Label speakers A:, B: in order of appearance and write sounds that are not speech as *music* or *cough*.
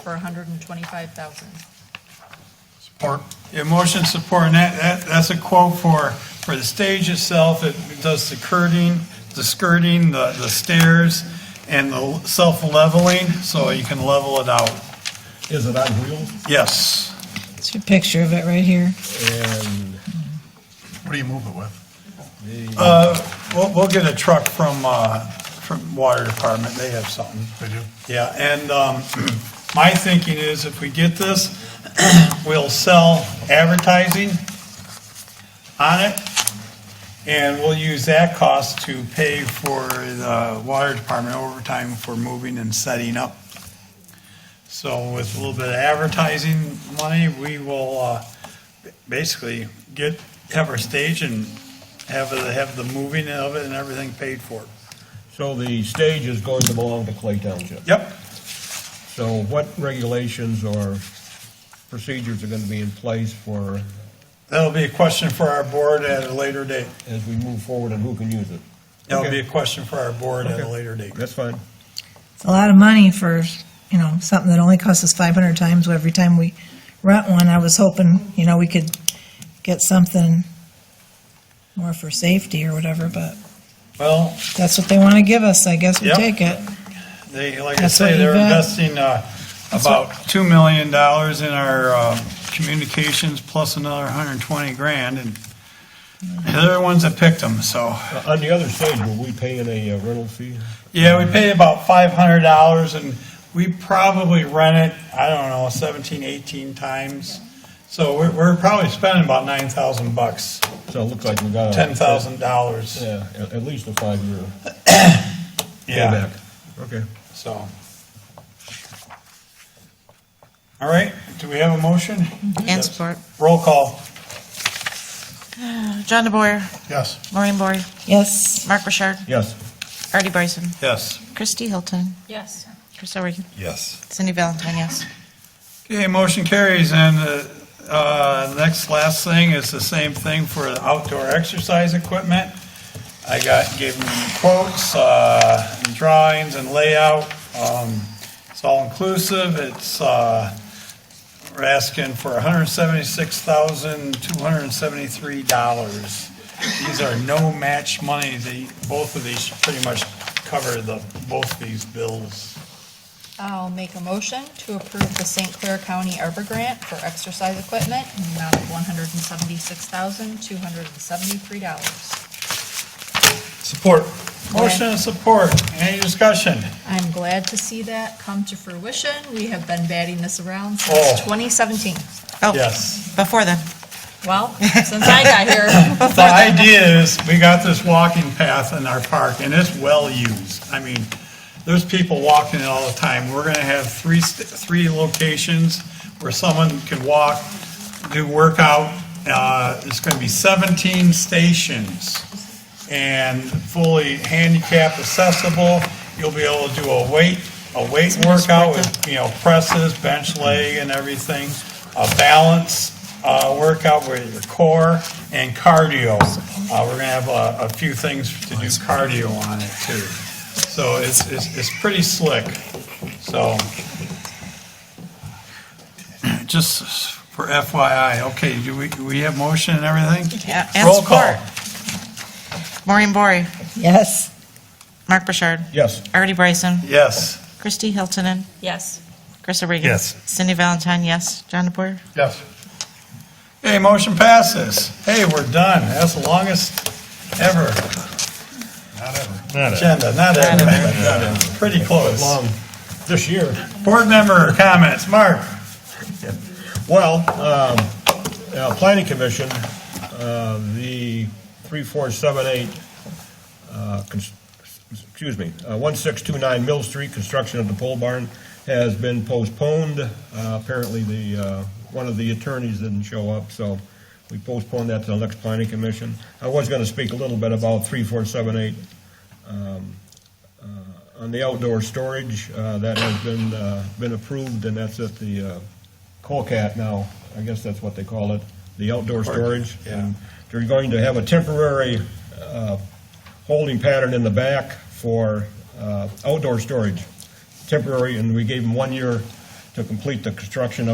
A: for hundred and twenty-five thousand.
B: Support. Yeah, motion support, and that, that, that's a quote for, for the stage itself, it does the curtain, the skirting, the, the stairs, and the self-leveling, so you can level it out.
C: Is it on wheels?
B: Yes.
D: It's a picture of it right here.
C: And
E: What do you move it with?
B: We'll, we'll get a truck from, uh, from Water Department, they have something.
E: They do?
B: Yeah, and um, *clears throat* my thinking is if we get this, *clears throat* we'll sell advertising on it, and we'll use that cost to pay for the water department overtime for moving and setting up. So with a little bit of advertising money, we will uh, basically get, have our stage and have, the- have the moving of it and everything paid for.
C: so the stage is going to belong to Clay Township.
B: Yep.
C: So what regulations or procedures are going to be in place for,
B: That'll be a question for our board at a later date.
C: as we move forward and who can use it?
B: That'll be
C: Okay.
B: a question for our board at a
C: Okay.
B: later date.
C: That's fine.
D: It's a lot of money for, you know, something that only costs us five hundred times every time we rent one. I was hoping, you know, we could get something more for safety or whatever, but
B: Well,
D: that's what they want to give us. I guess we
B: Yep.
D: take it.
B: they, like I
D: That's
B: say,
D: what
B: they're
D: Yvette-
B: investing uh, about two million dollars in our um, communications plus another hundred and twenty grand and they're the ones that picked them, so.
C: Uh, On the other stage, were we paying a uh, rental fee?
B: Yeah, we pay about five hundred dollars and we probably rent it, I don't know, seventeen, eighteen times. So we're, we're probably spending about nine thousand bucks,
C: So it looks like we got. a-
B: ten thousand dollars.
C: Yeah, at, at least a five-year
B: Yeah.
C: payback. Okay.
B: So. All right, do we have a motion?
F: And support.
B: Roll call.
F: John DeBoyer,
E: Yes.
F: Maureen Bory,
D: Yes,
F: Mark Richard,
C: Yes.
F: Artie Bryson,
B: Yes. Christie
F: Christy Hilton,
A: Yes.
F: Crystal Regan,
E: Yes.
F: Cindy Valentine, yes.
B: Okay, motion carries, and uh, uh, next, last thing is the same thing for the outdoor exercise equipment. I got, gave them quotes, uh, and drawings and layout. Um, It's all inclusive, it's, uh, we're asking for $176,273. These are no match money, they, both of these should pretty much cover the, both these bills.
A: I'll make a motion to approve the St. Clair County Arbor Grant for exercise equipment in the amount of one hundred and seventy-six thousand, two hundred and seventy-three dollars.
B: Support. Motion and support. Any discussion?
A: I'm glad to see that come to fruition. We have been batting this around
B: Oh.
A: since twenty seventeen.
F: Oh,
B: Yes.
F: Before then,
A: Well, since I got here,
B: *laughs* The idea is, we got this walking path in our park, and it's well-used. I mean, there's people walking it all the time. We're gonna have three, st- three locations where someone can walk, do workout. Uh, It's gonna be 17 stations and fully handicap accessible. You'll be able to do a weight, a weight workout with, you know, presses, bench leg and everything, a balance uh, workout with your core and cardio. Uh, We're gonna have a, a few things to do cardio on it too. So it's, it's, it's pretty slick, so. *clears throat* Just for FYI, okay, do we, do we have motion and everything?
F: Yeah, and
B: Roll call.
F: Maureen Bory,
D: yes.
F: Mark Richard,
C: Yes.
F: Artie Bryson,
B: Yes.
F: Christy Hilton, and
A: yes.
F: Crystal Regan.
B: Yes.
F: Cindy Valentine, yes. John DeBoyer.
E: Yes.
B: Hey, motion passes. Hey, we're done. That's the longest ever
C: Not
B: agenda, not ever, but not ever. pretty close.
C: Long, this year.
B: Board member comments, Mark?
C: Well, um, uh, Planning Commission, uh, the 3478, uh, cons- excuse me, uh, 1629 Mill Street, construction of the pole barn has been postponed. Uh, Apparently, the, uh, one of the attorneys didn't show up, so we postponed that to the next Planning Commission. I was going to speak a little bit about 3478 on the outdoor storage, uh, that has been, uh, been approved, and that's at the uh, Colcat now, I guess that's what they call it, the outdoor storage. And They're going to have a temporary uh, holding pattern in the back for uh, outdoor storage, temporary, and we gave them one year to complete the construction of.